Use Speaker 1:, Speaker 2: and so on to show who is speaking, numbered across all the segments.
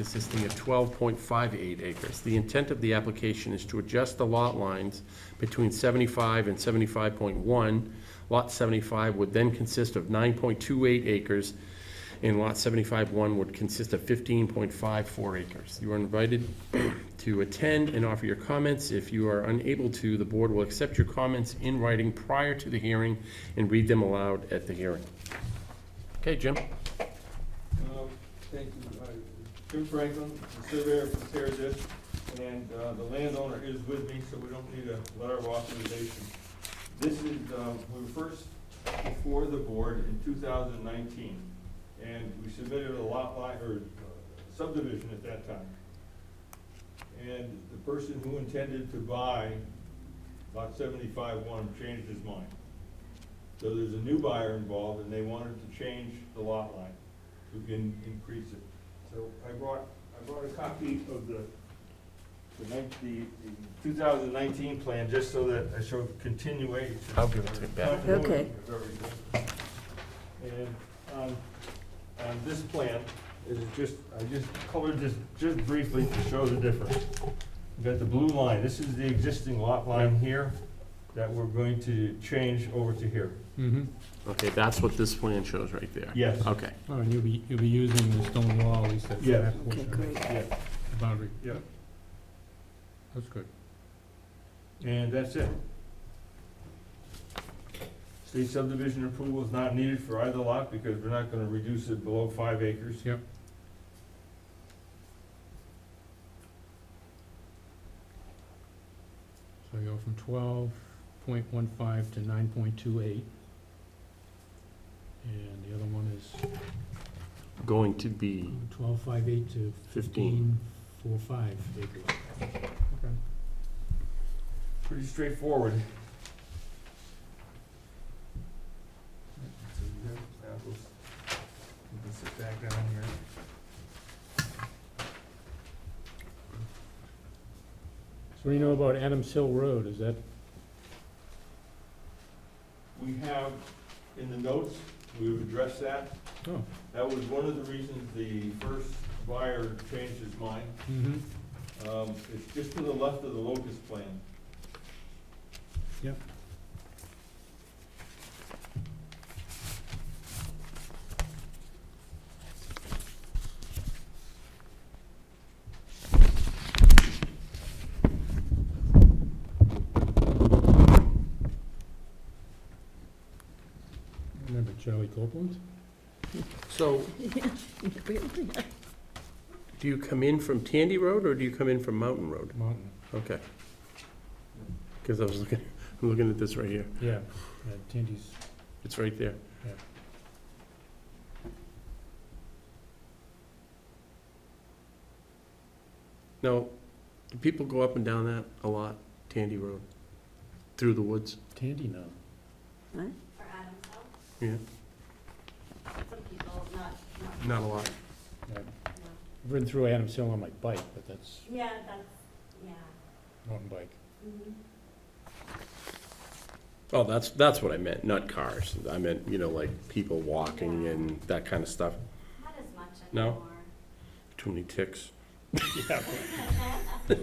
Speaker 1: consisting of twelve point five eight acres. The intent of the application is to adjust the lot lines between seventy-five and seventy-five point one. Lot seventy-five would then consist of nine point two eight acres, and lot seventy-five one would consist of fifteen point five four acres. You are invited to attend and offer your comments. If you are unable to, the board will accept your comments in writing prior to the hearing and read them aloud at the hearing. Okay, Jim?
Speaker 2: Um, Thank you. Uh, Jim Franklin, the surveyor from Terra Dish, and uh, the landowner is with me, so we don't need a letter of authorization. This is, um, we were first before the board in 2019, and we submitted a lot line, or uh, subdivision at that time. And the person who intended to buy lot 75-1 changed his mind. So there's a new buyer involved, and they wanted to change the lot line to in- increase it. So I brought, I brought a copy of the, the nine- the two thousand nineteen plan, just so that I show continuation.
Speaker 1: I'll give it to you back.
Speaker 2: Continuity
Speaker 3: Okay.
Speaker 2: of everything. And, um, on this plan, is just, I just colored this just briefly to show the difference. We've got the blue line, this is the existing lot line here that we're going to change over to here.
Speaker 4: Mm-hmm.
Speaker 1: Okay, that's what this plan shows right there.
Speaker 2: Yes.
Speaker 1: Okay.
Speaker 4: Oh, and you'll be, you'll be using the stone wall, at least that's
Speaker 2: Yeah.
Speaker 4: that
Speaker 3: Okay,
Speaker 4: portion, of
Speaker 3: great.
Speaker 2: Yeah,
Speaker 4: the boundary.
Speaker 2: yeah.
Speaker 4: That's good.
Speaker 2: And that's it. State subdivision approval is not needed for either lot because we're not gonna reduce it below five acres.
Speaker 4: Yep. So you go from twelve point one five to nine point two eight. And the other one is
Speaker 1: Going to be
Speaker 4: twelve five eight to
Speaker 1: fifteen.
Speaker 4: fifteen four five acres. Okay.
Speaker 2: Pretty straightforward. So you have apples. You can sit back down here.
Speaker 4: So what do you know about Adams Hill Road, is that,
Speaker 2: We have, in the notes, we've addressed that.
Speaker 4: oh,
Speaker 2: That was one of the reasons the first buyer changed his mind.
Speaker 4: mm-hmm,
Speaker 2: Um, it's just to the left of the locust plan.
Speaker 4: Yep. remember Charlie Copeland?
Speaker 1: So,
Speaker 3: Really?
Speaker 1: do you come in from Tandy Road or do you come in from Mountain Road?
Speaker 4: Mountain.
Speaker 1: Okay. Because I was looking, I'm looking at this right here.
Speaker 4: Yeah, yeah, Tandy's,
Speaker 1: It's right there.
Speaker 4: Yeah.
Speaker 1: Now, do people go up and down that a lot, Tandy Road, through the woods?
Speaker 4: Tandy now.
Speaker 5: For Adam's Hill?
Speaker 1: Yeah.
Speaker 5: Some people, not, not,
Speaker 1: Not a lot.
Speaker 4: I've
Speaker 5: no.
Speaker 4: ridden through Adams Hill on my bike, but that's
Speaker 5: Yeah, that's, yeah.
Speaker 4: mountain bike.
Speaker 5: Mhm.
Speaker 1: Oh, that's, that's what I meant, not cars. I meant, you know, like people walking
Speaker 5: Yeah.
Speaker 1: and that kind of stuff.
Speaker 5: Not as much
Speaker 1: No?
Speaker 5: anymore.
Speaker 1: Too many ticks.
Speaker 5: Yeah, That's for sure.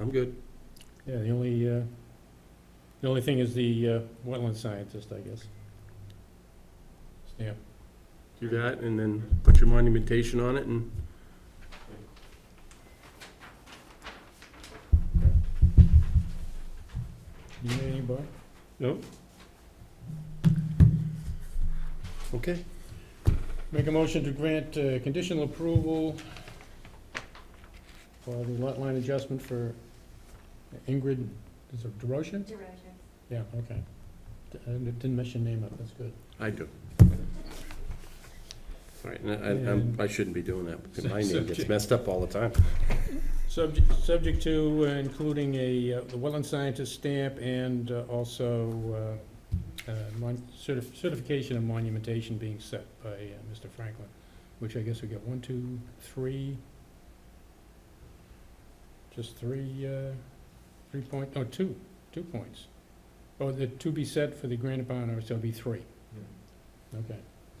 Speaker 1: I'm good.
Speaker 4: Yeah, the only, uh, the only thing is the uh, wetland scientist, I guess. Stamp.
Speaker 1: Do that and then put your monumentation on it and
Speaker 4: You need any, Bob?
Speaker 1: No? Okay.
Speaker 4: Make a motion to grant uh, conditional approval for the lot line adjustment for Ingrid, is it DeRoche?
Speaker 5: Derosier.
Speaker 4: Yeah, okay. D- I Didn't mess your name up, that's good.
Speaker 1: I do. All right, and I- I, I'm- I shouldn't be doing that, because my name gets messed up all the time.
Speaker 4: Subject, subject to uh, including a, uh, the wetland scientist stamp and uh, also uh, uh, mon- certif- certification of monumentation being set by uh, Mr. Franklin, which I guess we got one, two, three, just three, uh, three point, no, two, two Oh, points. Oh, the to be set for the granite bound, or so it'll be three, okay.